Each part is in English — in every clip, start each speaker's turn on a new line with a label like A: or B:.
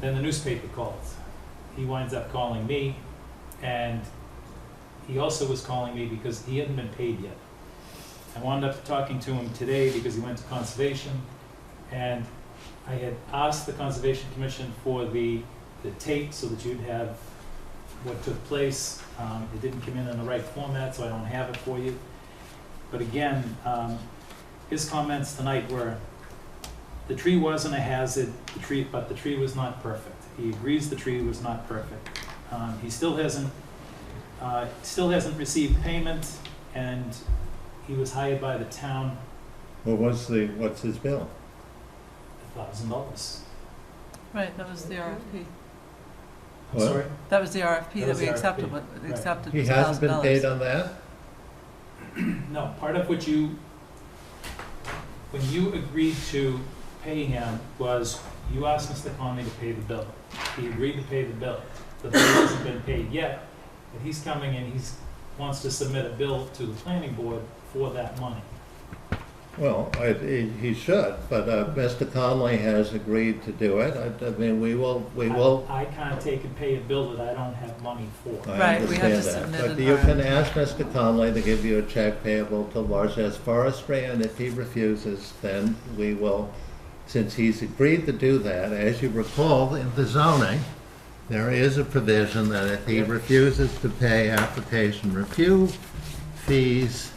A: Then the newspaper calls. He winds up calling me, and he also was calling me because he hadn't been paid yet. I wound up talking to him today because he went to conservation, and I had asked the Conservation Commission for the, the tape so that you'd have what took place. Um, it didn't come in in the right format, so I don't have it for you. But again, um, his comments tonight were, the tree wasn't a hazard, the tree, but the tree was not perfect. He agrees the tree was not perfect. Um, he still hasn't, uh, still hasn't received payment, and he was hired by the town
B: What was the, what's his bill?
A: a thousand dollars.
C: Right, that was the RFP.
A: I'm
B: What?
A: sorry?
C: That was the
A: That
C: RFP that
A: was
C: we
A: the
C: accepted,
A: RFP,
C: with-
A: right.
C: accepted
B: He
C: was
B: hasn't
C: thousand
B: been
C: dollars.
B: paid on that?
A: No, part of what you, when you agreed to pay him was, you asked Mr. Conley to pay the bill. He agreed to pay the bill. The bill hasn't been paid yet, but he's coming and he's, wants to submit a bill to the planning board for that money.
B: Well, I, he he should, but uh, Mr. Conley has agreed to do it. I, I mean, we will, we will,
A: I I can't take and pay a bill that I don't have money for.
B: I
C: Right, we have to
B: understand that.
C: submit
B: But
C: an
B: you can
C: RFP.
B: ask Mr. Conley to give you a check payable to Larches Forestry, and if he refuses, then we will, since he's agreed to do that, as you recall, in the zoning, there is a provision that if he refuses to pay application review fees,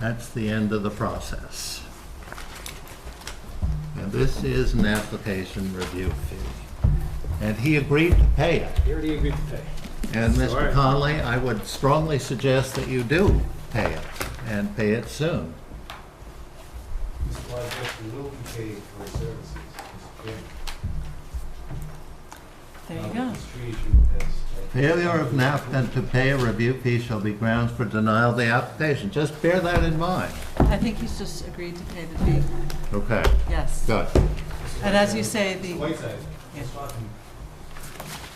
B: that's the end of the process. And this is an application review fee. And he agreed to pay it.
A: He already agreed to pay.
B: And
A: All
B: Mr.
A: right.
B: Conley, I would strongly suggest that you do pay it, and pay it soon.
D: Mr. Wojcicki will be paid for his services, Mr. Chairman.
C: There
D: Now,
C: you go.
D: This tree issue has.
B: Failure of an applicant to pay a review fee shall be grounds for denial of the application. Just bear that in mind.
C: I think he's just agreed to pay the fee,
B: Okay,
C: yes.
B: good.
C: And as you say,
D: Mr.
C: the,
D: Whiteside,
C: Yeah.
D: Mr. Swanton,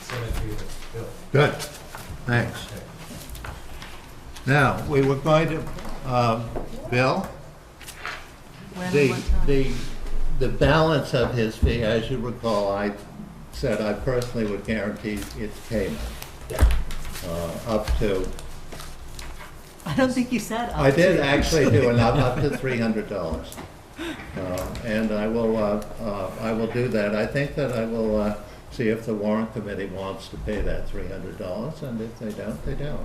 D: cemetery that's built.
B: Good, thanks. Now, we were going to, um, Bill?
C: when and
B: The,
C: what time?
B: the, the balance of his fee, as you recall, I said I personally would guarantee its payment, uh, up to
C: I don't think you said uh, up
B: I did
C: to.
B: actually do an up, up to three hundred dollars. And I will, uh, uh, I will do that. I think that I will uh, see if the warrant committee wants to pay that three hundred dollars, and if they don't, they don't.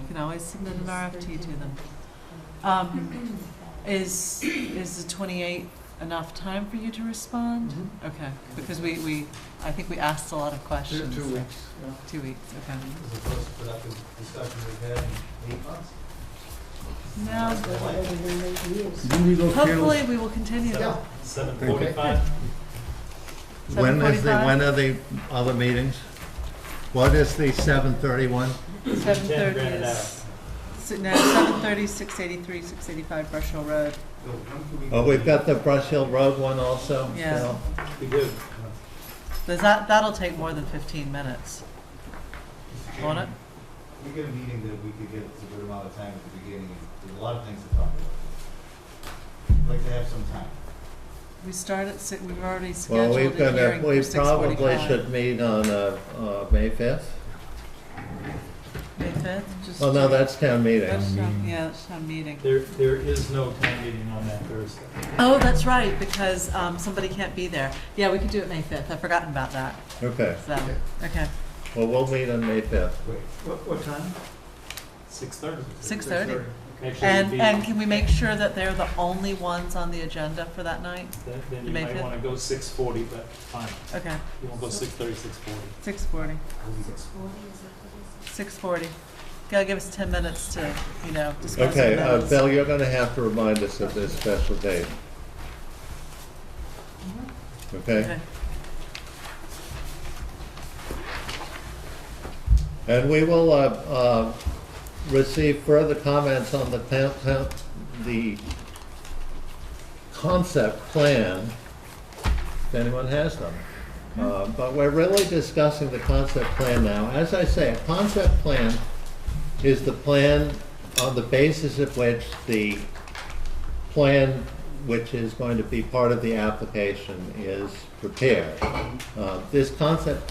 C: You can always submit an RFP to them. Um, Is, is the 28th enough time for you to respond?
A: Mm-hmm.
C: Okay, because we, we, I think we asked a lot of questions. Two weeks. Two weeks, okay.
A: Mm-hmm.
D: This is the first productive discussion we've had in eight months.
C: Now,
B: When is
C: hopefully, we will continue them.
A: Seven forty-five,
B: the, when
C: 7:45?
B: are the other meetings? What is the seven thirty-one?
C: Seven
A: ten
C: thirty
A: grand an hour.
C: is, si- no, seven thirty, six eighty-three, six eighty-five Brush Hill Road.
D: Bill, when can we?
B: Oh, we've got the Brush Hill Road one also?
C: Yeah.
B: Bill?
A: We do.
C: Does that, that'll take more than fifteen minutes,
D: Mr.
C: won't it?
D: Chairman, We get a meeting that we could get a good amount of time at the beginning, there's a lot of things to talk about. I'd Like to have some time.
C: We start at six, we've already
B: Well,
C: scheduled a
B: we've got, a-
C: hearing
B: we
C: for six
B: probably
C: forty-five.
B: should meet on, uh, uh, May fifth?
C: May fifth, just.
B: Oh, no, that's town meeting.
C: That's not- Yeah, that's not a meeting.
A: There, there is no town meeting on that Thursday.
C: Oh, that's right, because, um, somebody can't be there. Yeah, we could do it May fifth, I've forgotten about that,
B: Okay,
C: so, okay.
B: well, we'll meet on May fifth.
D: Wait, what, what time?
A: Six thirty.
C: Six thirty.
A: Actually, it'd
C: And,
A: be-
C: and can we make sure that they're the only ones on the agenda for that night?
A: Then then you
C: May
A: might
C: fifth?
A: wanna go six forty, but fine,
C: Okay,
A: you won't go six thirty, six forty.
C: six forty. Six forty. Gotta give us ten minutes to, you know, discuss the
B: Okay, uh,
C: minutes.
B: Bill, you're gonna have to remind us of this special date. Okay?
C: Okay.
B: And we will, uh, uh, receive further comments on the town, town, the concept plan, if anyone has them. Uh, but we're really discussing the concept plan now. As I say, a concept plan is the plan on the basis of which the plan, which is going to be part of the application, is prepared. Uh, This concept